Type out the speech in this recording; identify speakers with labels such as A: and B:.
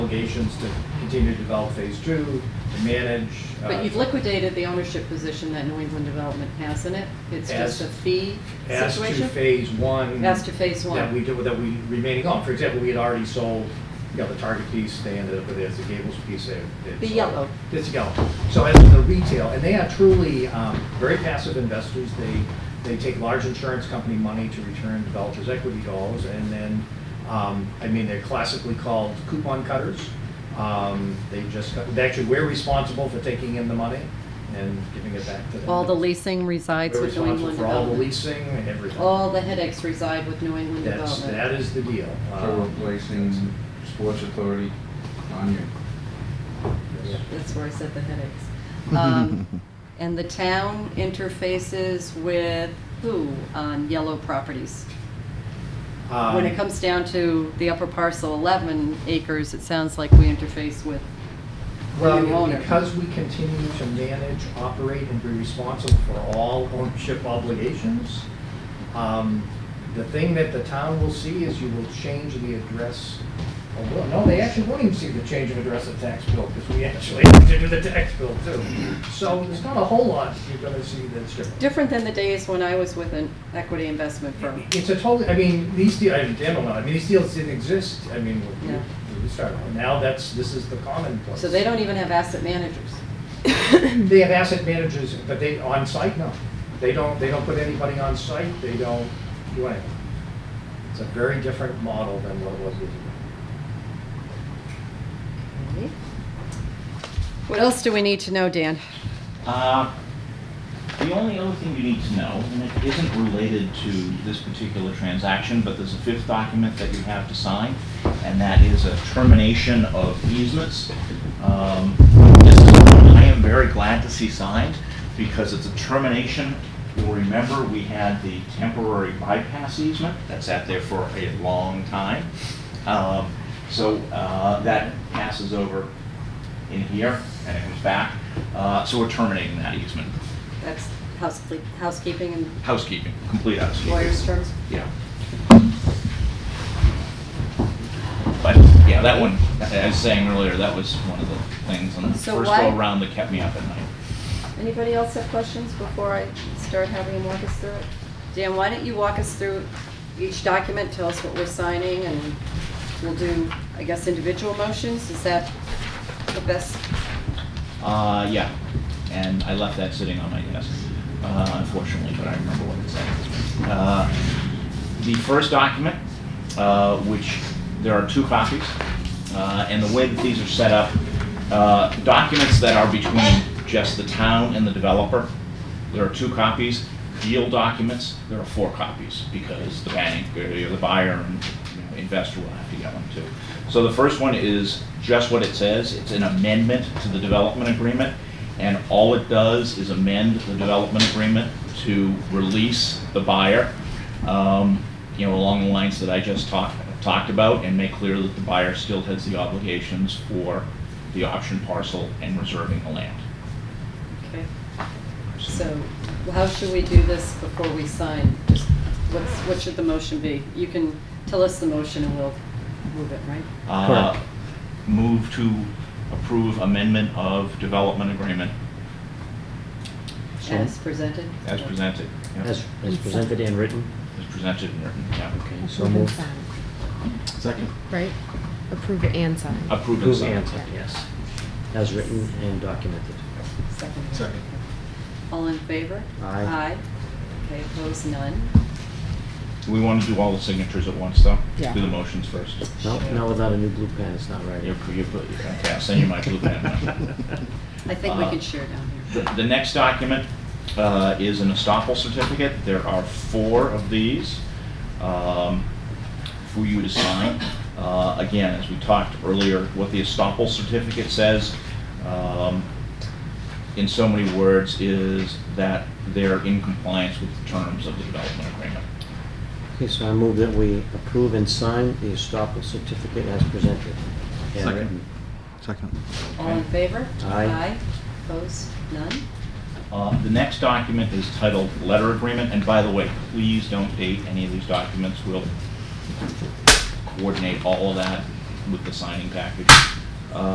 A: obligations to continue to develop phase two, to manage. uh,
B: But you've liquidated the ownership position that New England Development has in it. It's
A: As-
B: just a fee
A: As to
B: situation?
A: phase one.
B: As to phase one.
A: That we do, that we remaining on. For example, we had already sold, you know, the Target piece, they ended up with it, the Gables piece, they. they
B: The
A: sold.
B: yellow.
A: It's yellow. So as to the retail, and they are truly um, very passive investors. They, they take large insurance company money to return developers' equity dollars, and then, um, I mean, they're classically called coupon cutters. Um, They just, cut- they actually, we're responsible for taking in the money and giving it back to them.
B: All the leasing resides
A: We're
B: with New
A: responsible
B: England
A: for all the
B: Development.
A: leasing and everything.
B: All the headaches reside with New England
A: That's, that
B: Development.
A: is the deal.
C: So
A: Um,
C: we're placing Sports Authority on you.
A: yeah.
B: That's where I said the headaches. Um, And the town interfaces with who on yellow properties? When it
A: Um,
B: comes down to the upper parcel, 11 acres, it sounds like we interface with
A: Well,
B: new owner.
A: because we continue to manage, operate, and be responsible for all ownership obligations, um, the thing that the town will see is you will change the address. a little- No, they actually won't even see the change of address of tax bill, because we actually have to do the tax bill too. So there's not a whole lot you're gonna see that's different.
B: Different than the days when I was with an equity investment firm.
A: It's a totally, I mean, these deals, I mean, Dan will know, I mean, these deals didn't exist, I mean, we-
B: Yeah.
A: we started, now that's, this is the common place.
B: So they don't even have asset managers.
A: They have asset managers, but they, on site, no. They don't, they don't put anybody on site, they don't do anything. It's a very different model than what it was. years ago.
B: What else do we need to know, Dan?
D: Uh, The only other thing you need to know, and it isn't related to this particular transaction, but there's a fifth document that you have to sign, and that is a termination of easements. Um, This is one I am very glad to see signed, because it's a termination. You'll remember, we had the temporary bypass easement that sat there for a long time. Um, So uh, that passes over in here, and it comes back. Uh, So we're terminating that easement.
B: That's housecle- housekeeping and
D: Housekeeping, complete housekeeping.
B: lawyers' terms?
D: Yeah. But, yeah, that one, I was saying earlier, that was one of the things on the
B: So
D: first
B: why-
D: go-around that kept me up at night.
B: Anybody else have questions before I start having him walk us through it? Dan, why don't you walk us through each document, tell us what we're signing, and we'll do, I guess, individual motions? Is that the best?
D: Uh, yeah, and I left that sitting on my desk, uh, unfortunately, but I remember what it said. Uh, The first document, uh, which, there are two copies, uh, and the way that these are set up, uh, documents that are between just the town and the developer, there are two copies. Deal documents, there are four copies, because the bank, or the buyer, and you know, investor will have to get one too. So the first one is just what it says, it's an amendment to the development agreement, and all it does is amend the development agreement to release the buyer, um, you know, along the lines that I just talked, talked about, and make clear that the buyer still has the obligations for the option parcel and reserving the land.
B: Okay. So how should we do this before we sign? Just What's, what should the motion be? You can tell us the motion and we'll move it, right?
D: Uh, Move to approve amendment of development agreement
B: As presented?
D: as presented. Yeah.
E: As as presented and written?
D: As presented and written, yeah.
E: Okay, so
F: Approve and
E: moved.
F: sign,
D: Second.
F: right? Approve and sign.
D: Approved and
E: Approved
D: signed.
E: and signed, yes. As written and documented.
B: Second. All in favor?
E: Aye.
B: Aye. Okay, opposed, none.
D: We want to do all the signatures at once, though?
F: Yeah.
D: Do the motions first.
E: No, no, without a new blue pen, it's not right.
D: You're, you're, okay, I'll send you my blue pen. now.
B: I think we
D: Uh,
B: can share down
D: The
B: here.
D: the next document uh, is an estoppel certificate. There are four of these um, for you to sign. Uh, Again, as we talked earlier, what the estoppel certificate says, um, in so many words, is that they're in compliance with the terms of the development agreement.
E: Okay, so I move that we approve and sign the estoppel certificate as presented and
C: Second.
E: written.
C: Second.
B: All in favor?
E: Aye.
B: Opposed, none.
D: Uh, The next document is titled Letter Agreement, and by the way, please don't date any of these documents. We'll coordinate all of that with the signing package. Uh,